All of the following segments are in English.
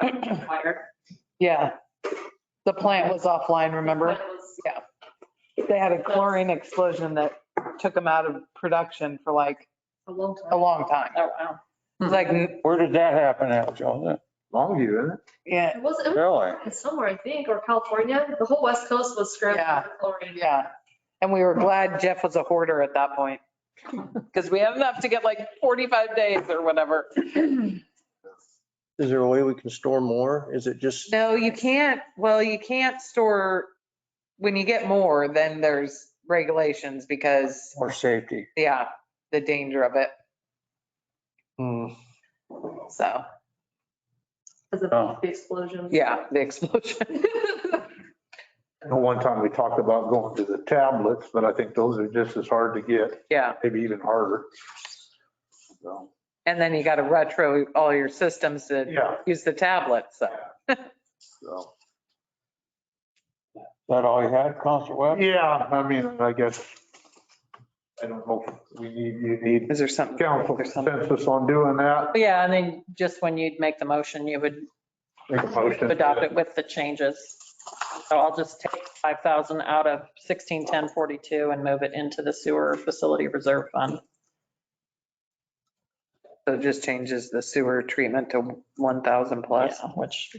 the wire. Yeah. The plant was offline, remember? That was- They had a chlorine explosion that took them out of production for like A long a time. long time. Oh, wow. It was Like, Where did that happen at, Joseph? Longview, isn't it? yeah, It was, it was Really? in somewhere, I think, or California. The whole west coast was scrambled Yeah. for chlorine. yeah. And we were glad Jeff was a hoarder at that point. Because we have enough to get like 45 days or whatever. Is there a way we can store more? Is it just, No, you can't, well, you can't store, when you get more, then there's regulations because, Or safety? yeah, the danger of it. Hmm, So, Because Oh. of the explosion. yeah, the explosion. The one time we talked about going to the tablets, but I think those are just as hard to get, Yeah. maybe even harder. So, And then you got to retro all your systems to Yeah, use the tablet, so. so, Is that all you had, Council Webb? yeah, I mean, I guess, I don't know, if we need, you need Is there something? council there's something- consensus on doing that. Yeah, and then just when you'd make the motion, you would Make a motion. to- adopt it with the changes. So I'll just take 5,000 out of 161042 and move it into the sewer facility reserve fund. So it just changes the sewer treatment to 1,000 plus. Yeah, Which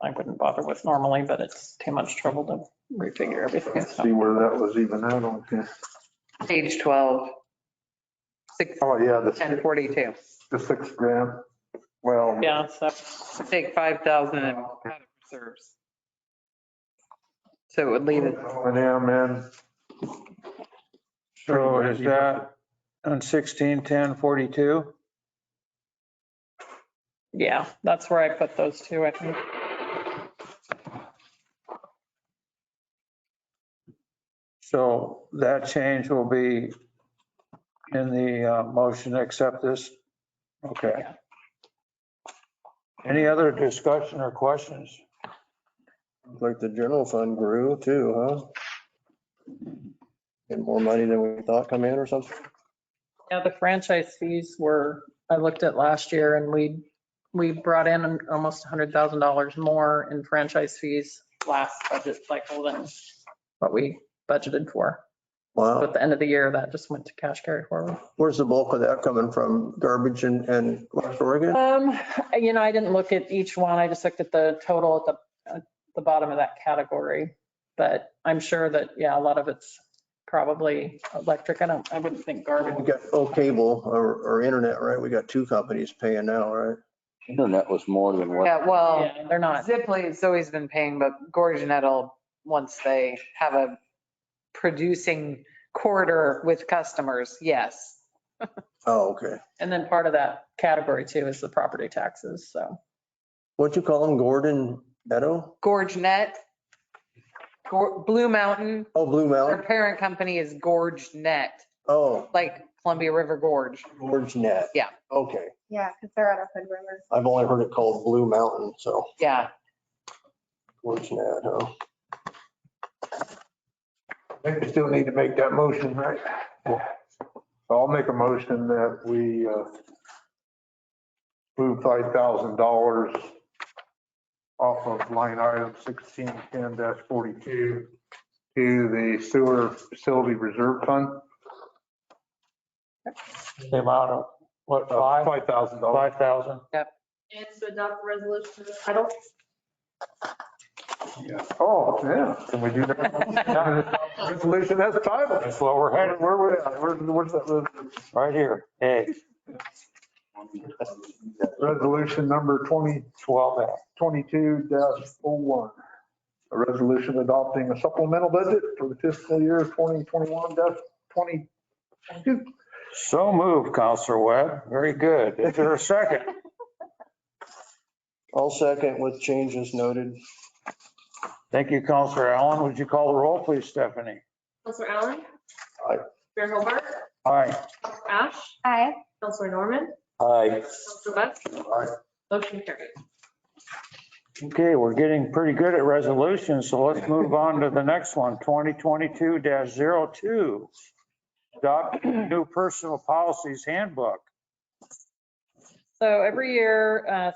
I wouldn't bother with normally, but it's too much trouble to refigure everything. Let's so. See where that was even at on this. Page 12, six- Oh, yeah, the, 1042. the six grand. Well, Yeah, so Take 5,000 and out of reserves. So it would leave it, and M and. So is that on sixteen, ten, forty-two? yeah, that's where I put those two, I think. So that change will be in the uh, motion to accept this? Okay. Any other discussion or questions? like the general fund grew too, huh? And more money than we thought come in or something? Yeah, the franchise fees were, I looked at last year and we, we brought in almost $100,000 more in franchise fees last budget cycle than what we budgeted for. So Wow, at the end of the year, that just went to cash carry forward. where's the bulk of that coming from? Garbage and, and West Oregon? Um, you know, I didn't look at each one. I just looked at the total at the, at the bottom of that category. But I'm sure that, yeah, a lot of it's probably electric. I don't, I wouldn't think garbage. We got, oh, cable or, or internet, right? We got two companies paying now, right? Internet was more than what. yeah, well. Yeah, They're not. Zipley has always been paying, but Gorgonette will, once they have a producing quarter with customers, yes. Oh, okay. And then part of that category too is the property taxes, so. What'd you call them? Gordon Meadow? Gorgonette, Gor- Blue Mountain, Oh, Blue their Mountain? parent company is GorgeNet, Oh, like Columbia River Gorge. Gorge Net. Yeah. Okay. Yeah, because they're out of Hood River. I've only heard it called Blue Mountain, so Yeah, Gorge Net, huh? We still need to make that motion, right? So I'll make a motion that we uh, move five thousand dollars off of line item sixteen ten forty-two to the sewer facility reserve fund. The amount of, what, Uh, five, Five thousand dollars. five thousand? And to adopt a resolution. I don't, Oh, yeah. Can we do that? Resolution as titled. That's what we're Where, headed, where, we at? Where's- where's that? res- right here. Hey, Resolution number twenty twelve F. twenty-two dash oh one. A resolution adopting a supplemental budget for the fiscal year twenty twenty-one dash twenty. So moved, Counselor Webb. Very good. Is there a second? I'll second with changes noted. Thank you, Counselor Allen. Would you call the roll, please, Stephanie? Counselor Allen? Aye. Mayor Hobart? Aye. Counselor Ash? Hi. Counselor Norman? Aye. Counselor West? Motion carried. Okay, we're getting pretty good at resolutions, so let's move on to the next one, 2022-02. Adopt new personal policies handbook. So every year, uh,